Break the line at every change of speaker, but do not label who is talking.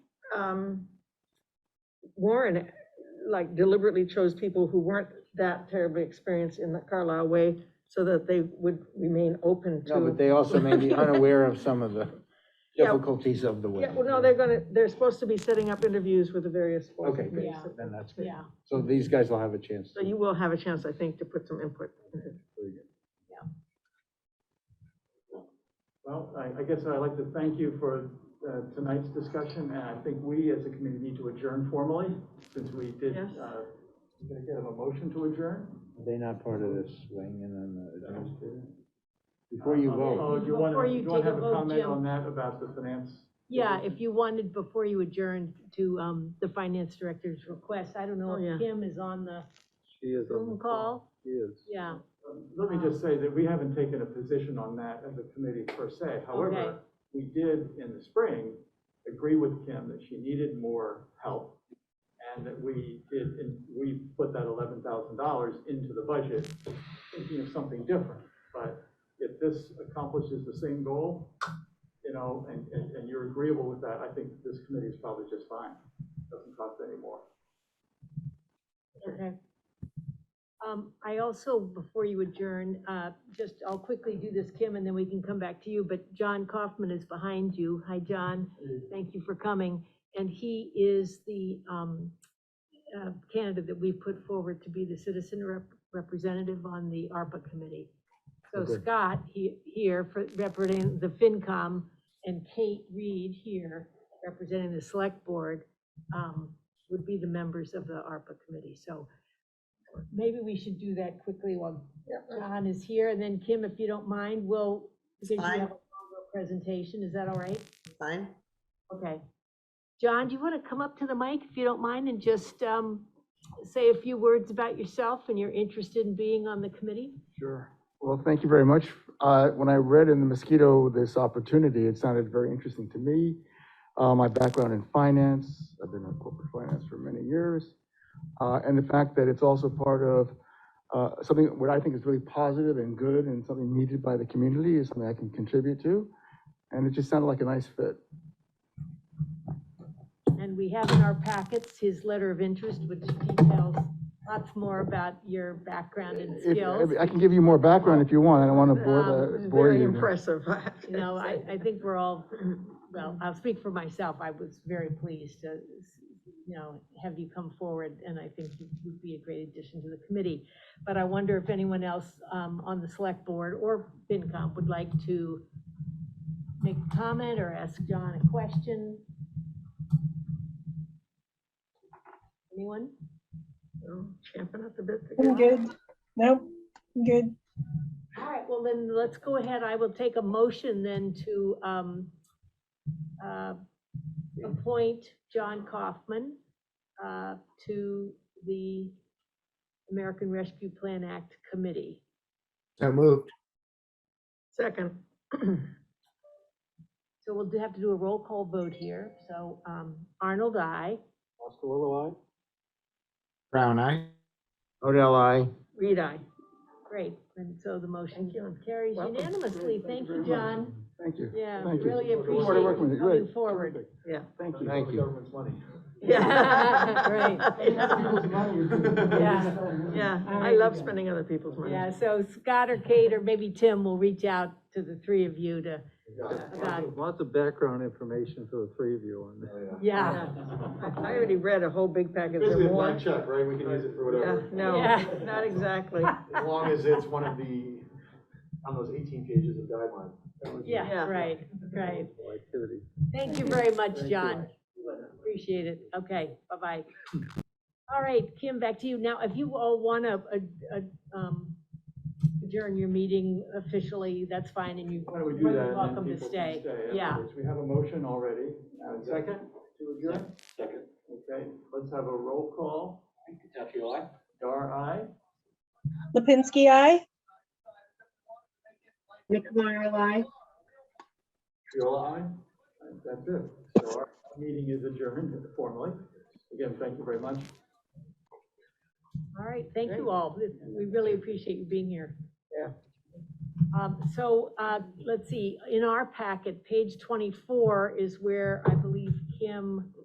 um, Warren, like deliberately chose people who weren't that terribly experienced in the Carlisle way so that they would remain open to.
No, but they also may be unaware of some of the
Yeah.
difficulties of the way.
Yeah, well, no, they're gonna, they're supposed to be setting up interviews with the various. boards
Okay,
and
good,
committees.
then that's good.
Yeah,
So these guys will have a chance.
So you will have a chance, I think, to put some input. in it.
Well, I, I guess I'd like to thank you for uh, tonight's discussion, and I think we as a committee need to adjourn formally, since we did,
Yes.
uh, we're gonna get a motion to adjourn?
They're not part of this wing and then, uh, before you
Oh,
vote,
do you want
Before
to,
you
you
take
want to
a
have a
vote,
comment
Jim.
on that about the finance?
yeah, if you wanted, before you adjourned, to, um, the finance director's request, I don't know
Oh, yeah.
if Kim is on the
She is on the
Zoom call,
She is.
yeah,
Let me just say that we haven't taken a position on that as a committee per se.
Okay.
However, we did in the spring agree with Kim that she needed more help and that we did, and we put that eleven thousand dollars into the budget thinking of something different. But if this accomplishes the same goal, you know, and, and, and you're agreeable with that, I think this committee is probably just fine. Doesn't cost any more.
okay. Um, I also, before you adjourn, uh, just, I'll quickly do this, Kim, and then we can come back to you, but John Kaufman is behind you, hi, John, thank you for coming, and he is the, um, uh, candidate that we put forward to be the citizen rep- representative on the ARPA committee. So
Okay.
Scott he- here, for- representing the FinCom, and Kate Reed here, representing the select board, um, would be the members of the ARPA committee, so maybe we should do that quickly while John is here, and then Kim, if you don't mind, we'll, because you
fine.
have a longer presentation, is that all right?
Fine.
Okay. John, do you want to come up to the mic if you don't mind and just um, say a few words about yourself and your interest in being on the committee?
Sure. Well, thank you very much. Uh, When I read in the mosquito this opportunity, it sounded very interesting to me. Uh, My background in finance, I've been in corporate finance for many years. uh, And the fact that it's also part of uh, something, what I think is really positive and good and something needed by the community is something I can contribute to. And it just sounded like a nice fit.
And we have in our packets his letter of interest, which details lots more about your background and
If-
skills.
I can give you more background if you want. I don't want to bore
Um,
the, bore you.
Very impressive. I have to
You know, I,
say.
I think we're all, well, I'll speak for myself. I was very pleased to, you know, have you come forward, and I think you would be a great addition to the committee. But I wonder if anyone else um, on the select board or FinCom would like to make a comment or ask John a question? Anyone?
So, Champing up a bit. to
I'm
get-
good. Nope, I'm good.
All right, well then, let's go ahead. I will take a motion then to um, uh, appoint John Kaufman uh, to the American Rescue Plan Act Committee.
so moved.
Second.
So we'll do have to do a roll call vote here. So um, Arnold, I.
Oscar,
Brown eye. Odell eye.
Reed, I.
Great, and so the motion
Thank you.
carries
Welcome.
unanimously. Thank you, John.
Thank you.
Yeah,
Thank you.
really
Look forward to
appreciate
working with
you
Great.
coming forward.
Yeah.
Thank you.
Thank you.
Government's money.
Yeah.
Great.
Yeah. Yeah,
All
I
right.
love spending other people's money.
Yeah, so Scott or Kate or maybe Tim will reach out to the three of you to, about,
Lots of background information for the three of you on that.
yeah.
I I already read a whole big package
Basically,
or
a
more.
blank check, right? We can use it for
Yeah,
whatever.
no,
Yeah.
not exactly.
As long as it's one of the, on those eighteen pages of guidelines. That was-
Yeah,
Yeah.
right, right.
Multiple Activity.
Thank you very much,
Thank you.
John. Appreciate it. Okay, bye-bye. All right, Kim, back to you. Now, if you all want to uh, um, adjourn your meeting officially, that's fine, and you are
Why don't we do that? and then
welcome to
people can
stay. Yeah.
afterwards. We have a motion already. Uh, Second? To adjourn? Second. Okay, let's have a roll call. Dar, aye?
Lipinski, I.
McNamara, aye.
Triola, aye? And That's it. So our meeting is adjourned formally. Again, thank you very much.
All right, thank you all. We really appreciate you being here.
Yeah.
Um, so, uh, let's see, in our packet, page twenty-four is where I believe Kim